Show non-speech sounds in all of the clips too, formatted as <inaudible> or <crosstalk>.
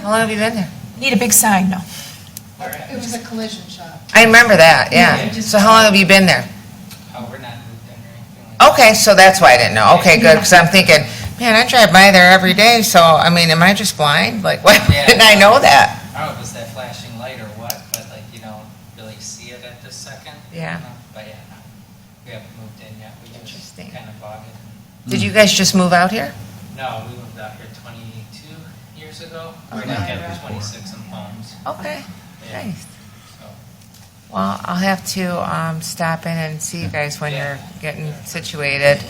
How long have you been there? Need a big sign, no. It was a collision shop. I remember that, Yeah, yeah. just- So how long have you been there? Oh, we're not moved in or anything like that. Okay, so that's why I didn't know. Okay, good, because I'm thinking, man, I drive by there every day, so, I mean, am I just blind? Like, <laughs> why Yeah. didn't I know that? I don't know if it's that flashing light or what, but like you don't really see it at this second. Yeah. you know? But yeah, no, we haven't moved in yet. We just Interesting. kind of bought it. Did you guys just move out here? No, we moved out here 22 years ago. We're Okay. now have 26 in homes. Okay, Yeah, nice. So, Well, I'll have to um, stop in and see you guys when Yeah. you're getting situated.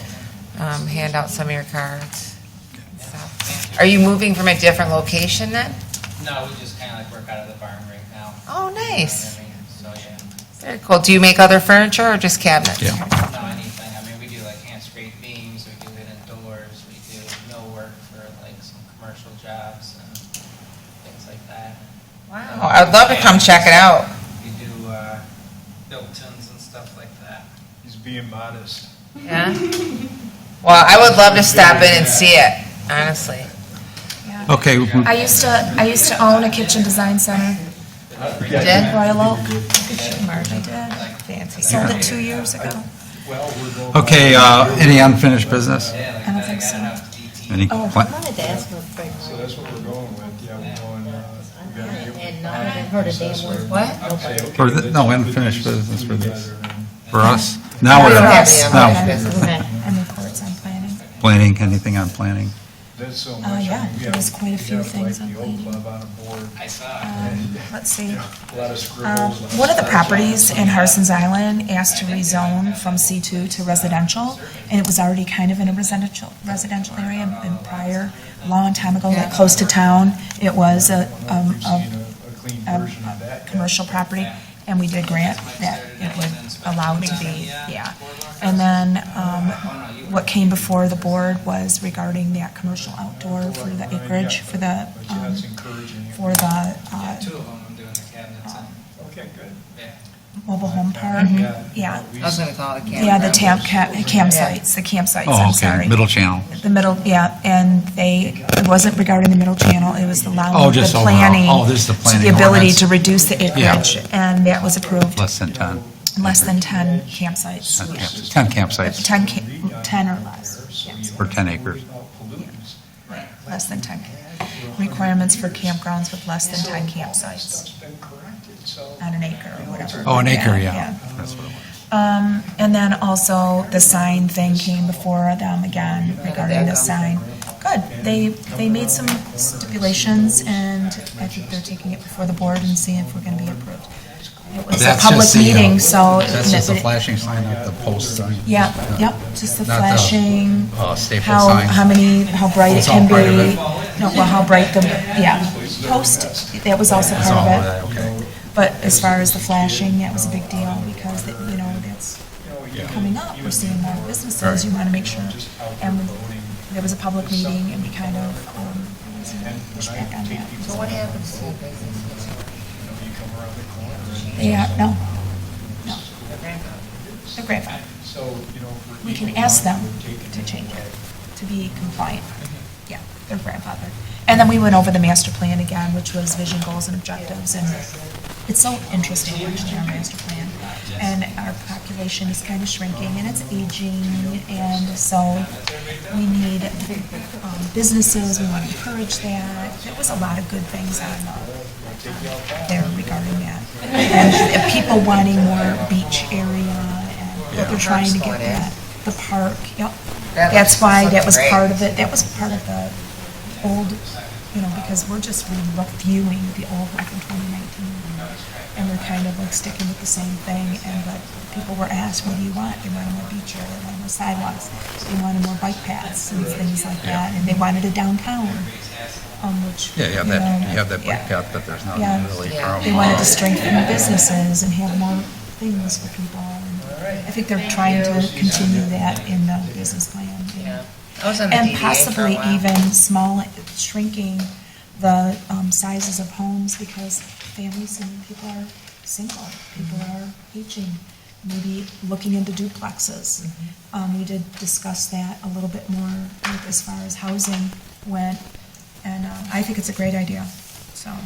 Um, Hand out some of your cards. and stuff. thank Are you moving from a different location then? you. No, we just kind of like work out of the barn right now. Oh, nice. You know what I mean? So yeah. Very cool. Do you make other furniture or just cabinets? Yeah. No, anything. I mean, we do like hand scraped beams, we do hidden doors, we do millwork for like some commercial jobs and things like that. Wow, I'd love to come check it out. We do, uh, built-ins and stuff like that. He's being modest. Yeah. Well, I would love to stop in and see it, honestly. Okay, we- I used to, I used to own a kitchen design center, Did? Royal Oak, Kitchen Mart, I did. Fancy. Sold it two years ago. okay, uh, any unfinished business? Yeah, like I don't that, I think so. got enough DT. Any, Oh. pla- wanted to ask real quick. So that's what we're going with, yeah, we're going, uh, we gotta get with. And not- I heard a damn word. What? Say, okay, For the- let's no, put unfinished these business for this. together and- for us? Now We we're, don't have any now, unfinished business. Okay. And reports on planning. planning, anything on planning? That's so much. Oh, I mean, yeah, we there have- was quite a we few have, things like, on the old cleaning. club on a board, I saw, Um, Let's see. a lot of Um, scribbles. a lot One of the stuff. properties in Harson's Island asked to rezone from C2 to residential, and it was already kind of in a residential, residential area, and- and prior, long time ago, like close to town, it was a, I don't um, think a we've seen a- a clean a version of that yet. commercial property, and we did grant that it would allow it to be, yeah. And then, um, what came before the board was regarding that commercial outdoor for the acreage, for the, But yeah, um, it's encouraging. for the, yeah, uh, two of them, I'm doing the cabinets and, Okay, good. yeah. mobile home park, Mm-hmm. yeah. I was gonna call it a camera. Yeah, the tam- ca- campsites, the campsites, Oh, I'm okay, sorry. middle channel. The middle, yeah, and they, it wasn't regarding the middle channel, it was Oh, allowing the just overall. planning. Oh, this is the to planning The ability ordinance. to reduce the acreage, and that was approved, Less than 10, less than 10 campsites. 10 camps- 10 campsites 10, ca- 10 or less, yes, for 10 acres. less than 10. Requirements for campgrounds with less than 10 campsites on an acre or whatever. Oh, an acre, yeah. That's what it was. Um, and then also the sign thing came before them again regarding the sign. Good, they, they made some stipulations and I think they're taking it before the board and seeing if we're gonna be approved. It was a That's public just the, uh, meeting, so. That's just the flashing sign, not the post sign. Yeah, yep, just the Not the, flashing, uh, staple how, sign. how many, how bright it It's all can part of be. it. No, well, how bright the, yeah, post, that was also It's all part of it. that, okay. But as far as the flashing, that was a big deal because, that, you know, that's coming up. We're seeing more businesses. You want to make sure. And there was a public meeting and we kind of um, pushed back on that. So what happens to the business? Yeah, no, no. They're grandfathered We can ask them to change it, to be compliant. Yeah, they're grandfathered. And then we went over the master plan again, which was vision, goals, and objectives. And it's so interesting watching our master plan. And our population is kind of shrinking and it's aging. And so we need um, businesses, we want to encourage that. There was a lot of good things on uh, there regarding that. And people wanting more beach area and what they're trying to get that, the park, yep. That That's looks why fucking that was great. part of it, that was part of the old, you know, because we're just reviewing the old one from 2019. And we're kind of like sticking with the same thing, and but people were asked, what do you want? They wanted more beach area, they wanted more sidewalks, they wanted more bike paths and things like that, and they wanted a downtown, um, which. Yeah, you have you that, know, you have that yeah. bike path, but there's not Yeah. really. Yeah. curb. They wanted to strengthen the businesses and have more things for people. and I think they're trying to continue that in the business plan. Yeah. I was on the And DDA for a possibly while. even small, shrinking the um, sizes of homes because families and people are single, people are aging, maybe looking into duplexes. Um, We did discuss that a little bit more, like as far as housing went, and um, uh, I think it's a great idea.